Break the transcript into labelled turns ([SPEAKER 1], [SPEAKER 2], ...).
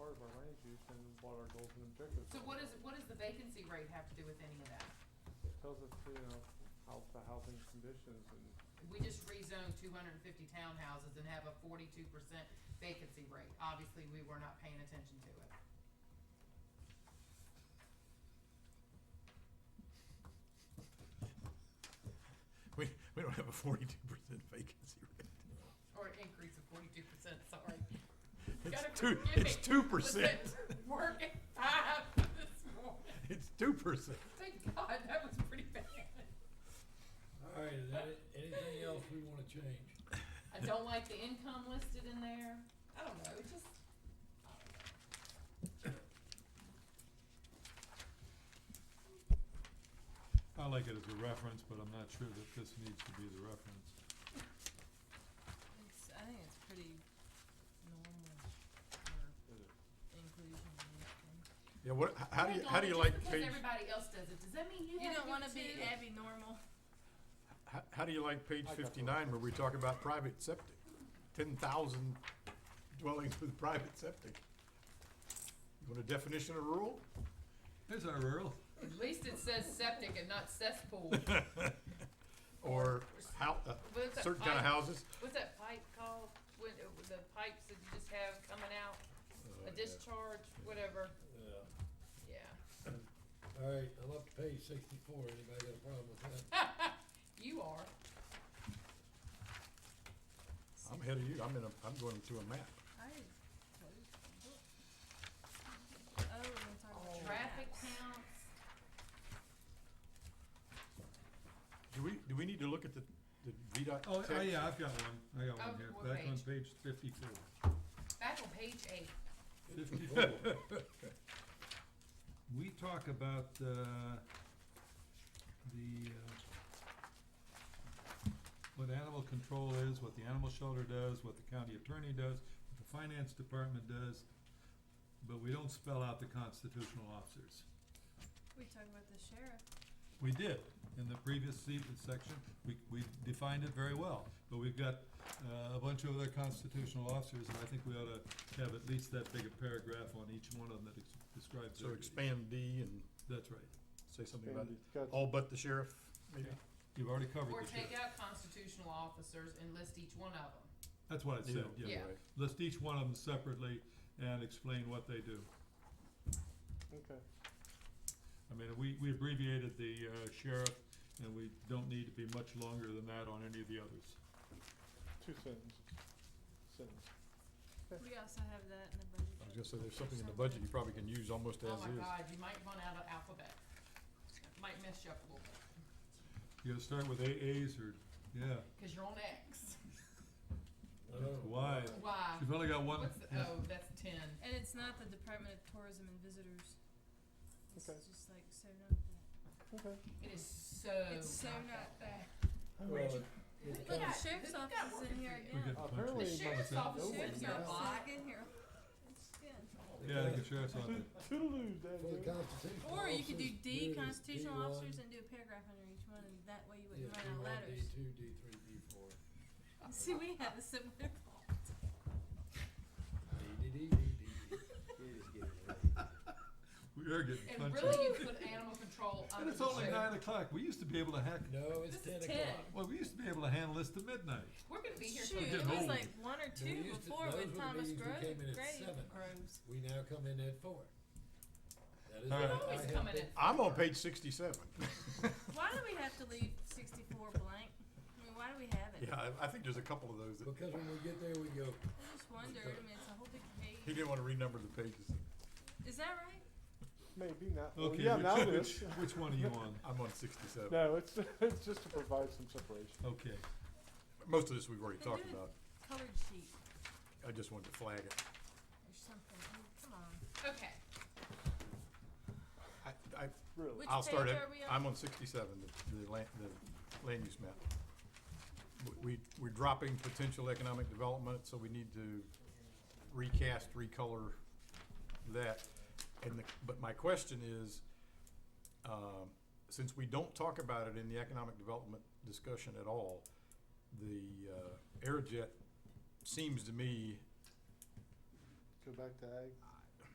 [SPEAKER 1] our goals and objectives.
[SPEAKER 2] So what is, what does the vacancy rate have to do with any of that?
[SPEAKER 1] It Tells us, you know, how the housing conditions and
[SPEAKER 2] We just rezoned two hundred and fifty townhouses and have a forty-two percent vacancy rate. Obviously, we were not paying attention to it.
[SPEAKER 3] We, we don't have a forty-two percent vacancy rate.
[SPEAKER 2] Or an increase of forty-two percent, sorry.
[SPEAKER 3] It's
[SPEAKER 2] gotta
[SPEAKER 3] two,
[SPEAKER 2] forgive
[SPEAKER 3] it's
[SPEAKER 2] me.
[SPEAKER 3] two percent.
[SPEAKER 2] Listen, Work at five this morning.
[SPEAKER 3] It's two percent.
[SPEAKER 2] Thank God, that was pretty bad.
[SPEAKER 4] All right, is that it? anything else we wanna change?
[SPEAKER 2] I don't like the income listed in there. I don't know, it just, I don't know.
[SPEAKER 5] I like it as a reference, but I'm not sure that this needs to be the reference.
[SPEAKER 6] It's, I think it's pretty normal
[SPEAKER 1] it
[SPEAKER 6] for
[SPEAKER 1] is.
[SPEAKER 6] inclusion in that thing.
[SPEAKER 3] Yeah, what, h- how do you,
[SPEAKER 2] Hang
[SPEAKER 3] how
[SPEAKER 2] on,
[SPEAKER 3] do you
[SPEAKER 2] just
[SPEAKER 3] like
[SPEAKER 2] Because
[SPEAKER 3] page,
[SPEAKER 2] everybody else does it, does that mean you
[SPEAKER 6] You
[SPEAKER 2] have to do
[SPEAKER 6] don't wanna
[SPEAKER 2] it
[SPEAKER 6] be
[SPEAKER 2] too?
[SPEAKER 6] Abby normal.
[SPEAKER 3] how, how do you like
[SPEAKER 1] I
[SPEAKER 3] page
[SPEAKER 1] got the
[SPEAKER 3] fifty-nine where we talk about private septic? Ten thousand dwellings with private septic. You want a definition of rural?
[SPEAKER 5] There's our rural.
[SPEAKER 2] At least it says septic and not cesspool.
[SPEAKER 3] Or how, uh,
[SPEAKER 2] What's that
[SPEAKER 3] certain kind of
[SPEAKER 2] pipe-
[SPEAKER 3] houses?
[SPEAKER 2] What's that pipe called, when, uh, with the pipes that you just have coming out, a
[SPEAKER 3] Uh, yeah.
[SPEAKER 2] discharge, whatever,
[SPEAKER 4] Yeah.
[SPEAKER 2] yeah.
[SPEAKER 4] All right, I'm up to page sixty-four, anybody got a problem with that?
[SPEAKER 2] You are,
[SPEAKER 3] I'm ahead of you, I'm in a, I'm going to a map.
[SPEAKER 6] I closed the book. Oh, we're gonna talk about
[SPEAKER 2] traffic
[SPEAKER 6] maps.
[SPEAKER 2] counts,
[SPEAKER 3] Do we, do we need to look at the, the VDOT
[SPEAKER 5] Oh,
[SPEAKER 3] text?
[SPEAKER 5] oh, yeah, I've got one, I got
[SPEAKER 2] Oh,
[SPEAKER 5] one here,
[SPEAKER 2] what
[SPEAKER 5] back on
[SPEAKER 2] page?
[SPEAKER 5] page fifty-four.
[SPEAKER 2] back on page eight,
[SPEAKER 5] Fifty-four. We talk about, uh, the, uh, what animal control is, what the animal shelter does, what the county attorney does, what the finance department does, but we don't spell out the constitutional officers.
[SPEAKER 6] We talk about the sheriff.
[SPEAKER 5] We did, in the previous se- section, we, we defined it very well, but we've got, uh, a bunch of other constitutional officers, and I think we ought to have at least that big a paragraph on each one of them that ex- describes
[SPEAKER 3] So
[SPEAKER 5] their duties.
[SPEAKER 3] expand D and
[SPEAKER 5] That's right,
[SPEAKER 3] say something about Oh.
[SPEAKER 1] And it's got-
[SPEAKER 3] all but the sheriff, maybe?
[SPEAKER 5] Yeah. you've already covered
[SPEAKER 2] or
[SPEAKER 5] the
[SPEAKER 2] take
[SPEAKER 5] sheriff,
[SPEAKER 2] out constitutional officers and list each one of them.
[SPEAKER 5] that's what I said,
[SPEAKER 3] Either-
[SPEAKER 5] yeah,
[SPEAKER 3] either way.
[SPEAKER 5] list each one of them separately and explain what they do.
[SPEAKER 1] Okay.
[SPEAKER 5] I mean, we, we abbreviated the, uh, sheriff, and we don't need to be much longer than that on any of the others.
[SPEAKER 1] Two sentences. Sentence.
[SPEAKER 6] We also have that in the budget.
[SPEAKER 3] I was gonna say, there's something in the budget you probably can use almost as
[SPEAKER 2] Oh my
[SPEAKER 3] is.
[SPEAKER 2] God, you might run out of alphabet, might mess you up a little bit,
[SPEAKER 5] You gotta start with AAs or, yeah,
[SPEAKER 2] cause you're on X,
[SPEAKER 4] Oh.
[SPEAKER 5] that's why,
[SPEAKER 2] why,
[SPEAKER 5] you've only got one,
[SPEAKER 2] what's the,
[SPEAKER 5] yeah.
[SPEAKER 2] oh, that's ten.
[SPEAKER 6] And it's not the Department of Tourism and Visitors. It's
[SPEAKER 1] Okay.
[SPEAKER 6] just like so not that.
[SPEAKER 1] Okay.
[SPEAKER 2] It is so.
[SPEAKER 6] It's so not that.
[SPEAKER 4] Well, it-
[SPEAKER 2] Who's
[SPEAKER 4] it
[SPEAKER 2] got-
[SPEAKER 4] comes-
[SPEAKER 6] The sheriff's
[SPEAKER 2] who's got
[SPEAKER 6] office is
[SPEAKER 2] working
[SPEAKER 6] in here
[SPEAKER 2] for you?
[SPEAKER 5] we
[SPEAKER 6] again.
[SPEAKER 5] get punched.
[SPEAKER 1] Apparently-
[SPEAKER 6] The
[SPEAKER 1] Wait,
[SPEAKER 6] sheriff's
[SPEAKER 2] but
[SPEAKER 6] office
[SPEAKER 1] no
[SPEAKER 6] is
[SPEAKER 1] one's
[SPEAKER 6] not
[SPEAKER 1] got-
[SPEAKER 6] back in here. It's again.
[SPEAKER 5] Yeah, the sheriff's
[SPEAKER 1] So,
[SPEAKER 5] office.
[SPEAKER 1] Toodaloo,
[SPEAKER 4] For the
[SPEAKER 1] Daddy.
[SPEAKER 4] constitutional
[SPEAKER 6] Or you could do
[SPEAKER 4] officers,
[SPEAKER 6] D,
[SPEAKER 4] it as
[SPEAKER 6] constitutional
[SPEAKER 4] D1,
[SPEAKER 6] officers, and do a paragraph under each one, and that way you
[SPEAKER 4] yeah,
[SPEAKER 6] wouldn't run out of
[SPEAKER 4] D1,
[SPEAKER 6] letters.
[SPEAKER 4] D two, D three, D four.
[SPEAKER 6] See, we had a similar problem.
[SPEAKER 4] D, D, D, D, D, D.
[SPEAKER 5] We are getting
[SPEAKER 2] And
[SPEAKER 5] punched.
[SPEAKER 2] really, you put animal control
[SPEAKER 5] And
[SPEAKER 2] under
[SPEAKER 5] it's
[SPEAKER 2] the
[SPEAKER 5] only
[SPEAKER 2] sheriff.
[SPEAKER 5] nine o'clock. We used to be able to hack.
[SPEAKER 4] No, it's
[SPEAKER 6] This
[SPEAKER 4] ten
[SPEAKER 6] is
[SPEAKER 4] o'clock.
[SPEAKER 5] Well, we used to be able to handle this to midnight.
[SPEAKER 2] We're gonna be here till
[SPEAKER 6] Shoot, it
[SPEAKER 5] getting
[SPEAKER 6] was
[SPEAKER 5] old.
[SPEAKER 6] like one or
[SPEAKER 4] They
[SPEAKER 6] two
[SPEAKER 4] used to-
[SPEAKER 6] before
[SPEAKER 4] those were
[SPEAKER 6] with
[SPEAKER 4] the
[SPEAKER 6] Thomas
[SPEAKER 4] meetings we
[SPEAKER 6] Grove,
[SPEAKER 4] came in at
[SPEAKER 6] Grave,
[SPEAKER 4] seven.
[SPEAKER 6] Groves.
[SPEAKER 4] We now come in at four. That is
[SPEAKER 5] All
[SPEAKER 4] what
[SPEAKER 5] right.
[SPEAKER 4] I
[SPEAKER 2] Always
[SPEAKER 4] have
[SPEAKER 2] coming
[SPEAKER 4] been-
[SPEAKER 2] in.
[SPEAKER 3] I'm on page sixty-seven.
[SPEAKER 6] Why do we have to leave sixty-four blank? I mean, why do we have it?
[SPEAKER 3] Yeah, I, I think there's a couple of those that,
[SPEAKER 4] Because when we get there, we go,
[SPEAKER 6] I just wondered, I mean, it's a whole big
[SPEAKER 3] he
[SPEAKER 6] page.
[SPEAKER 3] didn't wanna renumber the pages.
[SPEAKER 6] Is that right?
[SPEAKER 1] Maybe not. Well,
[SPEAKER 5] Okay,
[SPEAKER 1] yeah, now it
[SPEAKER 5] which,
[SPEAKER 1] is.
[SPEAKER 5] which, which one are you on?
[SPEAKER 3] I'm on sixty-seven.
[SPEAKER 1] No, it's, it's just to provide some separation.
[SPEAKER 5] Okay.
[SPEAKER 3] Most of this we've already
[SPEAKER 6] Then
[SPEAKER 3] talked
[SPEAKER 6] do it.
[SPEAKER 3] about.
[SPEAKER 6] Colored sheet
[SPEAKER 3] I just wanted to flag it.
[SPEAKER 6] or something. Oh, come on.
[SPEAKER 2] Okay,
[SPEAKER 3] I, I,
[SPEAKER 1] Really.
[SPEAKER 6] Which
[SPEAKER 3] I'll start
[SPEAKER 6] page
[SPEAKER 3] it.
[SPEAKER 6] are we on?
[SPEAKER 3] I'm on sixty-seven, the, the land, the land use map. W- We, we're dropping potential economic development, so we need to recast, recolor that. And the, but my question is, um, since we don't talk about it in the economic development discussion at all, the, uh, Aerojet seems to me
[SPEAKER 1] Go back to ag.